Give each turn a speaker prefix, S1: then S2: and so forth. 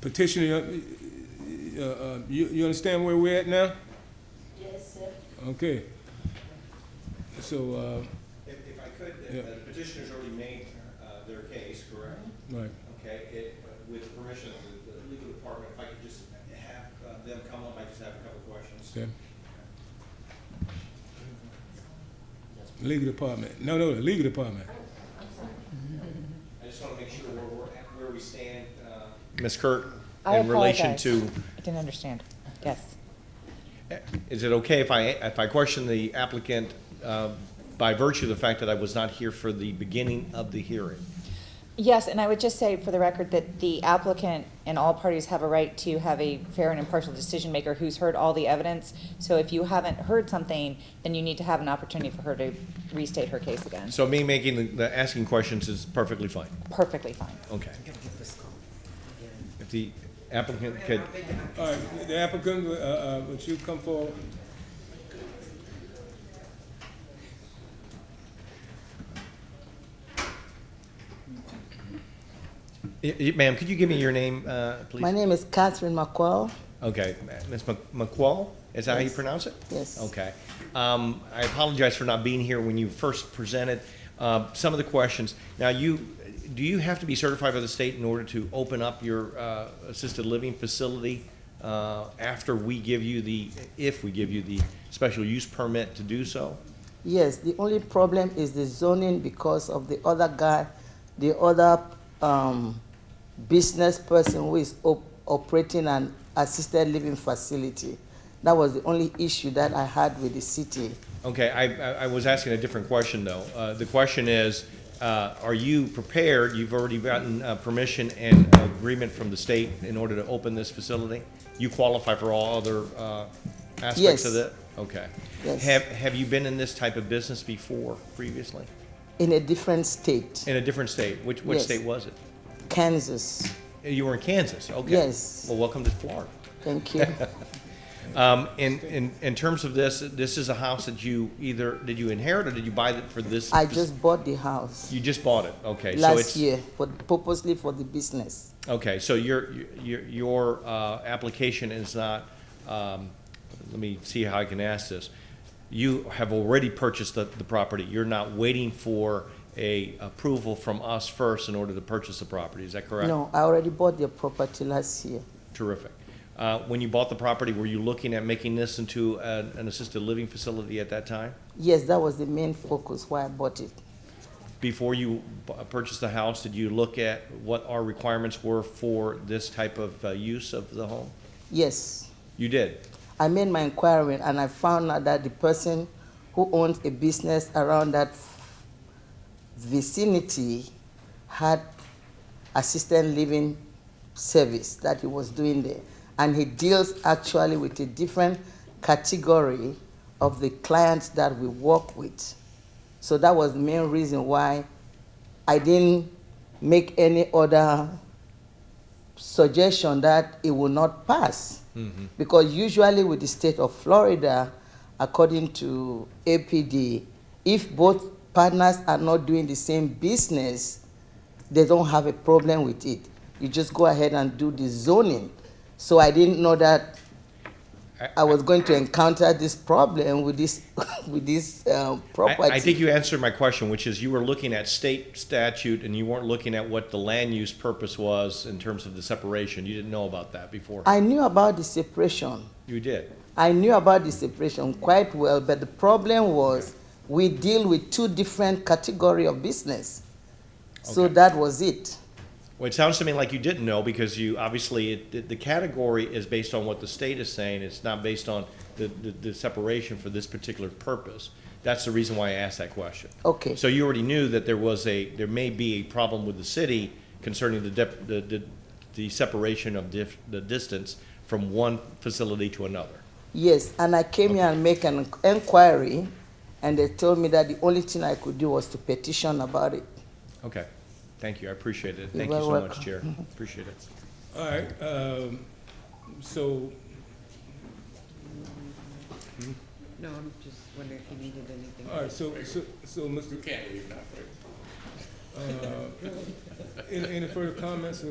S1: Petitioner, uh, uh, you, you understand where we're at now?
S2: Yes, sir.
S1: Okay. So, uh,
S3: If, if I could,
S1: Yeah.
S3: the- the petitioner's already made uh, their case, correct?
S1: right,
S4: Mm-hmm.
S3: Okay, it, uh, with permission of the- the legal department, if I could just have uh, them come up, I just have a couple questions.
S1: okay. Legal department, no, no, the legal department.
S3: I just want to make sure where we're, at, where we stand. uh. Ms. Kurt,
S4: I apologize. I didn't understand. Yes.
S3: eh, is it okay if I, if I question the applicant uh, by virtue of the fact that I was not here for the beginning of the hearing?
S4: Yes, and I would just say for the record that the applicant and all parties have a right to have a fair and impartial decision maker who's heard all the evidence. So if you haven't heard something, then you need to have an opportunity for her to restate her case again.
S3: So me making, the- the, asking questions is perfectly fine,
S4: Perfectly fine.
S3: okay. If the applicant could.
S1: All right, the applicant, uh, uh, would you come forward?
S3: Y- y- Ma'am, could you give me your name, uh, please?
S5: My name is Catherine McQuell.
S3: Okay, Ms. Mc- McQuall, is that how you
S5: Yes.
S3: pronounce it?
S5: Yes.
S3: Okay. Um, I apologize for not being here when you first presented uh, some of the questions. Now, you, do you have to be certified by the state in order to open up your uh, assisted living facility uh, after we give you the, if we give you the special use permit to do so?
S5: Yes, the only problem is the zoning because of the other guy, the other um, business person who is op- operating an assisted living facility. That was the only issue that I had with the city.
S3: Okay, I, I- I was asking a different question, though. Uh, The question is, uh, are you prepared, you've already gotten uh, permission and agreement from the state in order to open this facility? You qualify for all other uh, aspects of
S5: Yes.
S3: it? Okay.
S5: Yes.
S3: Have, have you been in this type of business before, previously?
S5: In a different state,
S3: In a different state? Which, which
S5: Yes.
S3: state was it?
S5: Kansas.
S3: You were in Kansas, okay.
S5: Yes.
S3: Well, welcome to Florida.
S5: Thank you.
S3: Um, In, in, in terms of this, this is a house that you either, did you inherit or did you buy it for this?
S5: I just bought the house
S3: You just bought it, okay. so
S5: last
S3: it's-
S5: year for, purposely for the business.
S3: Okay, so your, your, your uh, application is not, um, let me see how I can ask this. You have already purchased the, the property, you're not waiting for a approval from us first in order to purchase the property, is that correct?
S5: No, I already bought the property last year.
S3: Terrific. Uh, When you bought the property, were you looking at making this into an an assisted living facility at that time?
S5: Yes, that was the main focus why I bought it.
S3: Before you bu- purchased the house, did you look at what our requirements were for this type of uh, use of the home?
S5: Yes.
S3: You did?
S5: I made my inquiry and I found out that the person who owns a business around that vicinity had assisted living service that he was doing there. And he deals actually with a different category of the clients that we work with. So that was the main reason why I didn't make any other suggestion that it will not pass.
S3: Mm-hmm.
S5: Because usually with the state of Florida, according to APD, if both partners are not doing the same business, they don't have a problem with it. You just go ahead and do the zoning. So I didn't know that
S3: I-
S5: I was going to encounter this problem with this, with this uh,
S3: I-
S5: property.
S3: I think you answered my question, which is you were looking at state statute and you weren't looking at what the land use purpose was in terms of the separation. You didn't know about that before.
S5: I knew about the separation.
S3: You did.
S5: I knew about the separation quite well, but the problem was we deal with two different category of business. So
S3: Okay.
S5: that was it.
S3: Well, it sounds to me like you didn't know because you, obviously, it- the- the category is based on what the state is saying. It's not based on the, the, the separation for this particular purpose. That's the reason why I asked that question.
S5: Okay.
S3: So you already knew that there was a, there may be a problem with the city concerning the, dep- the, the, the separation of dif- the distance from one facility to another.
S5: Yes, and I came here and make an inquiry, and they told me that the only thing I could do was to petition about it.
S3: Okay, thank you, I appreciate it.
S5: You're
S3: Thank you
S5: very
S3: so much,
S5: welcome.
S3: Chair. Appreciate it.
S1: All right, um, so,
S6: No, I'm just wondering if you needed anything.
S1: all right, so, so, so, Mr.
S7: You can't leave now, right?
S1: Uh, Any, any further comments or